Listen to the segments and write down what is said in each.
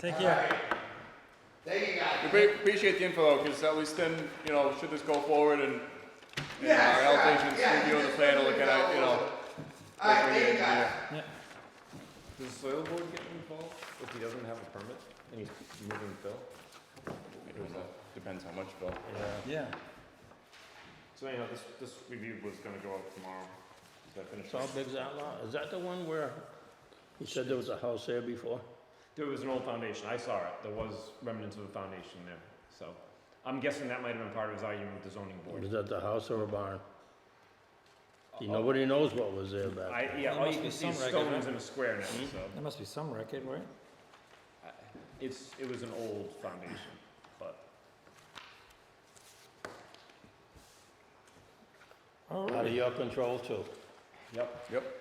Take care. Thank you guys. We pre- appreciate the info, because at least then, you know, should this go forward and, and Yeah, our sure, allocations, yeah, review of the just plan, and let look me at, know. it, you know. Alright, look at thank it, you guys. yeah. Yeah. Does the soil board get involved if he doesn't have a permit and he's moving fill? It was, uh, Depends how much, Bill. Yeah. Yeah. So anyhow, this, this review was gonna go out tomorrow. Is that finished? Saw Big's Outlaw, is that the one where you said there was a house there before? There was an old foundation, I saw it, there was remnants of a foundation there, so. I'm guessing that might have been part of his argument with the zoning board. Was that the house or a barn? See, Nobody knows what was there back I, There yeah, all must you be can some see is record, Mm-hmm. stones right? in a square now, so. There must be some record, right? I- It's, it was an old foundation, but. All then. Out of right. your control too. Yep. Yep.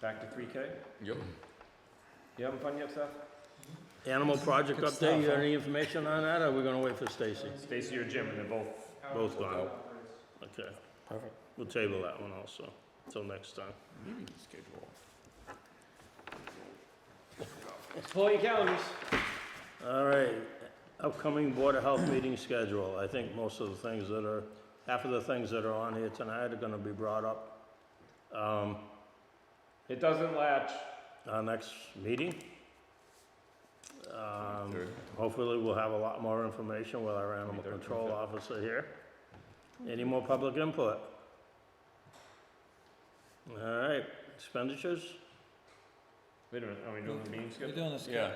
Back to three K. Yep. You having fun yet, Seth? Animal project Good update, you stuff, got huh? any information on that, or are we gonna wait for Stacy? Stacy or Jim, and they're both Both gone. Okay, Perfect. we'll table that one also, till next time. Meeting schedule. Pull your calendars. All right, upcoming Board of Health meeting schedule, I think most of the things that are, half of the things that are on here tonight are gonna be brought up. Um, It doesn't latch. our next meeting. Um, Hopefully, we'll have a lot more information with our animal Twenty-third, control officer here. Any more public input? All right, expenditures? Wait a minute, are we doing the meeting We're schedule? doing this, Yeah,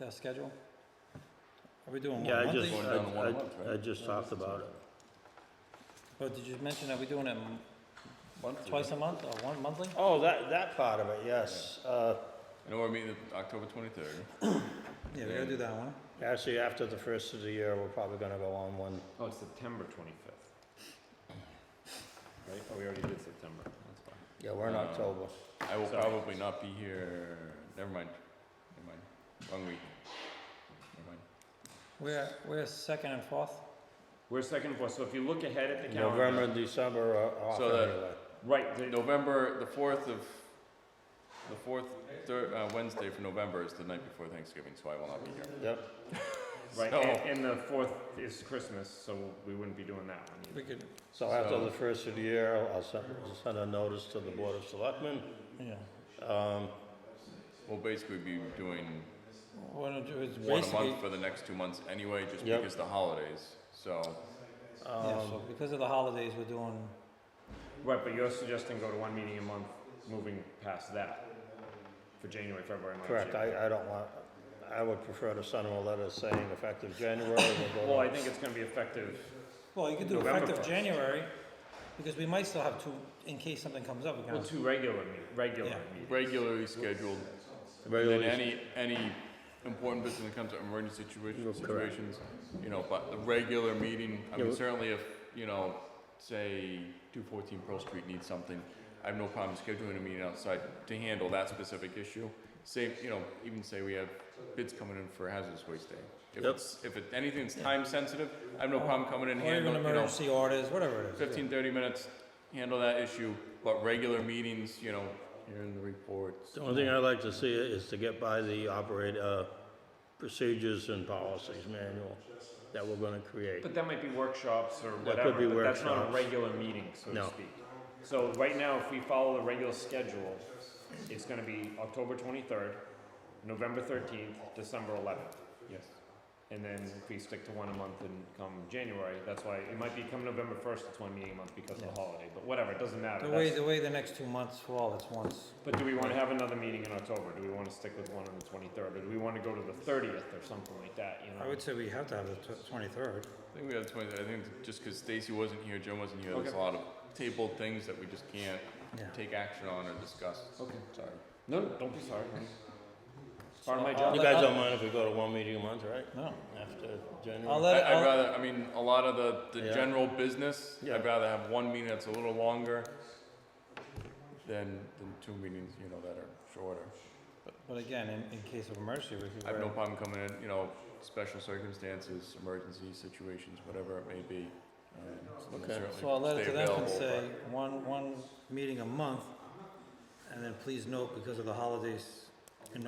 the schedule? Are we doing one Yeah, I monthly? just, Going down to one a month, I- I, I right? just talked about it. Oh, did you mention that we're doing it m- monthly. twice a month or one monthly? Oh, that, that part of it, yes. Uh, I know we're meeting October twenty-third. Yeah, we gotta do that one. actually, after the first of the year, we're probably gonna go on one. Oh, it's September twenty-fifth. Right, oh, we already did September, that's fine. Yeah, we're in Uh, October. I will Sorry. probably not be here, never mind, never mind, wrong week. Never mind. We're, we're second and fourth. We're second and fourth, so if you look ahead at the calendar. November and December are off So that- anyway. Right, the- November, the fourth of, the fourth, third, uh, Wednesday for November is the night before Thanksgiving, so I will not be here. Yep, right, so- and, and the fourth is Christmas, so we wouldn't be doing that one We either. could, so after So- the first of the year, I'll send, send a notice to the Board of Selectmen. yeah. Um, We'll basically be doing What it is one a basically, month for the next two months anyway, just Yep. because the holidays, so. yeah, so because of the holidays, we're doing, Right, but you're suggesting go to one meeting a month, moving past that for January, February, March. Correct, April. I, I don't want, I would prefer to send them a letter saying effective January, Well, we'll go I to think it's gonna be effective, well, you could do November effective first. January, because we might still have two, in case something comes up, we can well, always two regular, me- regular Yeah. meetings. Regularly scheduled, and then regularly. any, any important business that comes up, emergency situation, That's correct. situations, you know, but the regular meeting, I Yeah, mean, we- certainly if, you know, say, two fourteen Pearl Street needs something, I have no problem scheduling a meeting outside to handle that specific issue. Same, you know, even say we have bids coming in for hazardous waste day. If Yep. it's, if it, anything's time sensitive, I have no problem coming in, Or even handling, you know, emergency orders, whatever it is. yeah. 15, 30 minutes, handle that issue, but regular meetings, you know, hearing the reports. The only thing I'd like to see is to get by the operate, uh, procedures and policies manual that we're gonna create. But that might be workshops or That whatever, could be but that's not a workshops. regular meeting, so to No. speak. So right now, if we follow the regular schedule, it's gonna be October twenty-third, November thirteenth, December eleventh. Yes. And then if we stick to one a month and come January, that's why, it might be come November first, it's one meeting a month because of the holiday, but whatever, it doesn't matter. The way, that's- the way the next two months fall, it's once. But do we wanna have another meeting in October? Do we wanna stick with one on the twenty-third, or do we wanna go to the thirtieth or something like that, you know? I would say we have to have the twenty-third. I think we have 20, I think just because Stacy wasn't here, Jim wasn't here, there's a Okay. lot of tabled things that we just can't Yeah. take action on or discuss. Okay. Sorry. No, no, don't be sorry. It's Part of my So, job. You guys don't mind if we go to one meeting a month, right? No. After I'll January? I, let, I'd I'll, rather, I mean, a lot of the, the Yeah. general business, Yeah. I'd rather have one meeting that's a little longer than, than two meetings, you know, that are shorter. but again, in, in case of emergency, we could. I have no wear- problem coming in, you know, special circumstances, emergency situations, whatever it may be. Um, so we'll Okay. certainly So I'll let it stay to them and available, say, one, one meeting a month, and then please note, because of the holidays,